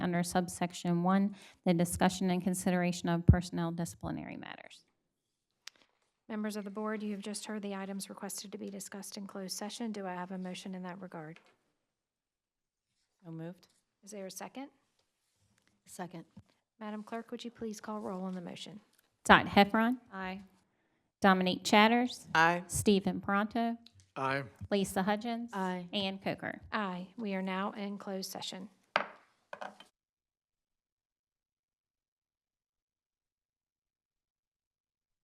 under subsection 1, the discussion and consideration of personnel disciplinary matters. Members of the board, you have just heard the items requested to be discussed in closed session. Do I have a motion in that regard? So moved. Is there a second? Second. Madam Clerk, would you please call roll on the motion? Dot Heffron, Aye. Dominique Chatters, Aye. Stephen Pronto, Aye. Lisa Hudgens. Aye. Ann Coker. Aye, we are now in closed session.